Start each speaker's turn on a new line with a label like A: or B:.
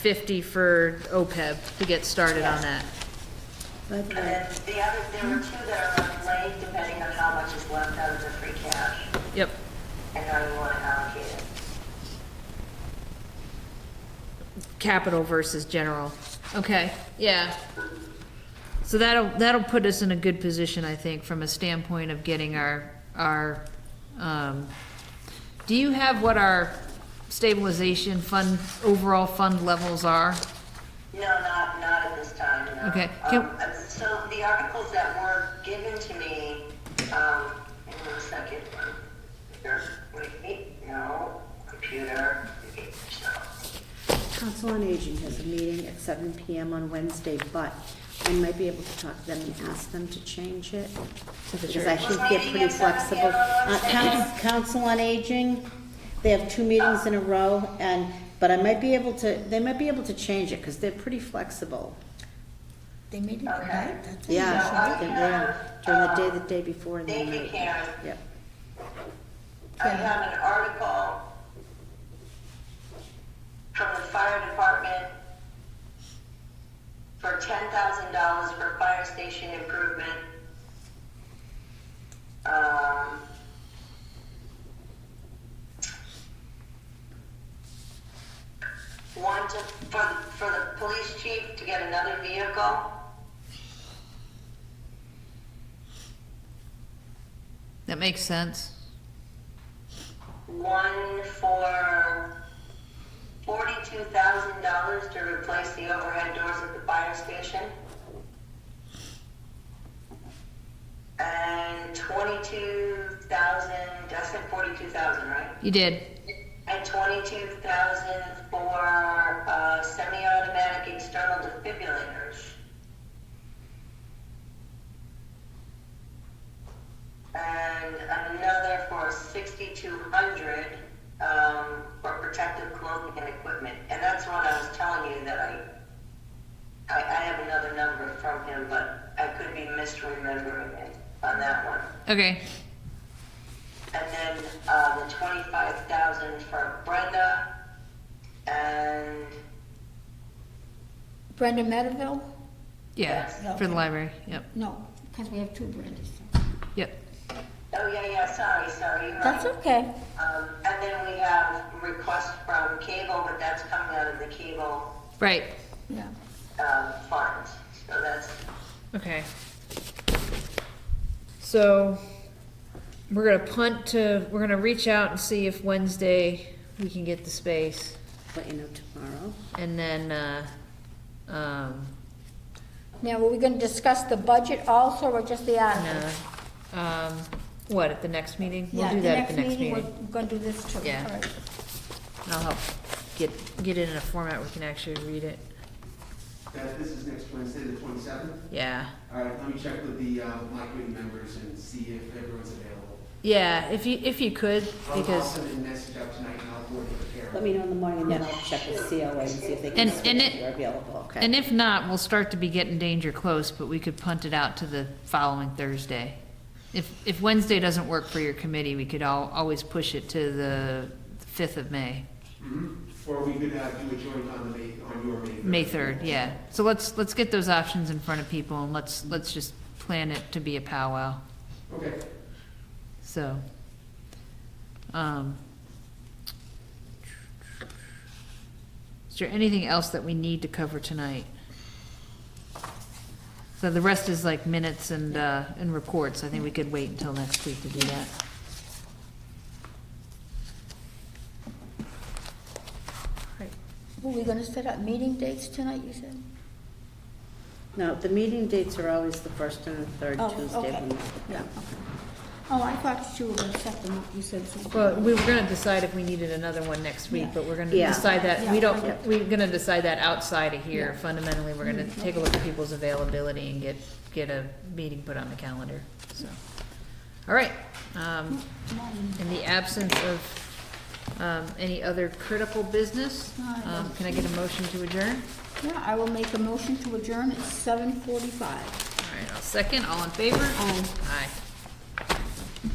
A: fifty for OPEB to get started on that.
B: That's
C: And
B: right.
C: then the other, there were two that are left late, depending on how much is left out of the free cash
A: Yep,
C: and how you want to allocate it.
A: capital versus general. Okay, yeah. So that'll, that'll put us in a good position, I think, from a standpoint of getting our, our, um, do you have what our stabilization fund, overall fund levels are?
C: No, not, not at this time, no.
A: Okay, can-
C: Um, uh, so the articles that were given to me, um, in one second, um, here, wait, no, computer, no.
B: Council on Aging has a meeting at seven PM on Wednesday, but I might be able to talk to them and ask them to change it. Because I think they're pretty flexible. Uh, Coun- Council on Aging, they have two meetings in a row and, but I might be able to, they might be able to change it because they're pretty flexible.
D: They made it tonight, that's it.
B: Yeah, they were, during the day, the day before and the
C: Thank you,
B: night.
C: Karen.
B: Yep.
C: I have an article from the fire department for ten thousand dollars for fire station improvement. Um, One to, for, for the police chief to get another vehicle.
A: That makes sense.
C: one for forty-two thousand dollars to replace the overhead doors at the fire station. And twenty-two thousand, I said forty-two thousand, right?
A: You did.
C: And twenty-two thousand for, uh, semi-automatic external defibrillators. And another for sixty-two hundred, um, for protective clothing and equipment. And that's what I was telling you that I, I, I have another number from him, but I could be misremembering it on that one.
A: Okay,
C: And then, uh, the twenty-five thousand for Brenda, and,
D: Brenda Medeville?
A: yeah, for the library, yep,
D: No, because we have two Brendas.
A: yep.
C: oh, yeah, yeah, sorry, sorry, you're
D: That's
C: right.
D: okay.
C: Um, and then we have requests from cable, but that's coming out of the cable,
A: Right,
D: Yeah.
C: um, fund, so that's,
A: okay. So, we're gonna punt to, we're gonna reach out and see if Wednesday we can get the space.
B: Let you know tomorrow.
A: And then, uh, um,
D: Now, are we gonna discuss the budget also, or just the articles?
A: no, um, what, at the next meeting? We'll
D: Yeah,
A: do that at the next meeting.
D: we're we're gonna do this too.
A: Yeah.
D: All right.
A: And I'll help get, get it in a format we can actually read it.
E: That, this is next Wednesday, the twenty-seventh.
A: Yeah.
E: All right, let me check with the, uh, my committee members and see if everyone's available.
A: Yeah, if you, if you could,
E: I'll- I'll
A: because,
E: send a message out tonight and I'll forward it to Karen.
B: Let me know in the morning and then I'll check with COA and see if they can
A: And-
B: switch
A: and
B: if
A: it-
B: you're available, okay?
A: and if not, we'll start to be getting danger close, but we could punt it out to the following Thursday. If, if Wednesday doesn't work for your committee, we could al- always push it to the fifth of May,
E: Mhm. Or we could, uh, do a joint on the May, on your May.
A: May third, yeah. So let's, let's get those options in front of people and let's, let's just plan it to be a powwow,
E: Okay,
A: so. um, Is there anything else that we need to cover tonight? So the rest is like minutes and, uh, and reports. I think we could wait until next week to do that.
D: Were we gonna set up meeting dates tonight, you said?
B: No, the meeting dates are always the first and the third
D: Oh,
B: Tuesday
D: okay.
B: of the month.
D: Yeah, okay. Oh, I thought you were gonna set them up, you said something.
A: Well, we were gonna decide if we needed another one next week, but we're gonna
B: Yeah.
A: decide that, we don't,
B: Yeah.
A: we're gonna decide that outside of here.
D: Yeah.
A: Fundamentally, we're gonna
B: Mm-hmm.
A: take a look at people's availability and get, get a meeting put on the calendar, so. All right, um, in the absence of, um, any other critical business, um, can I get a motion to adjourn?
D: Yeah, I will make a motion to adjourn at seven forty-five.
A: All right, I'll second, all in favor? Aye. Aye.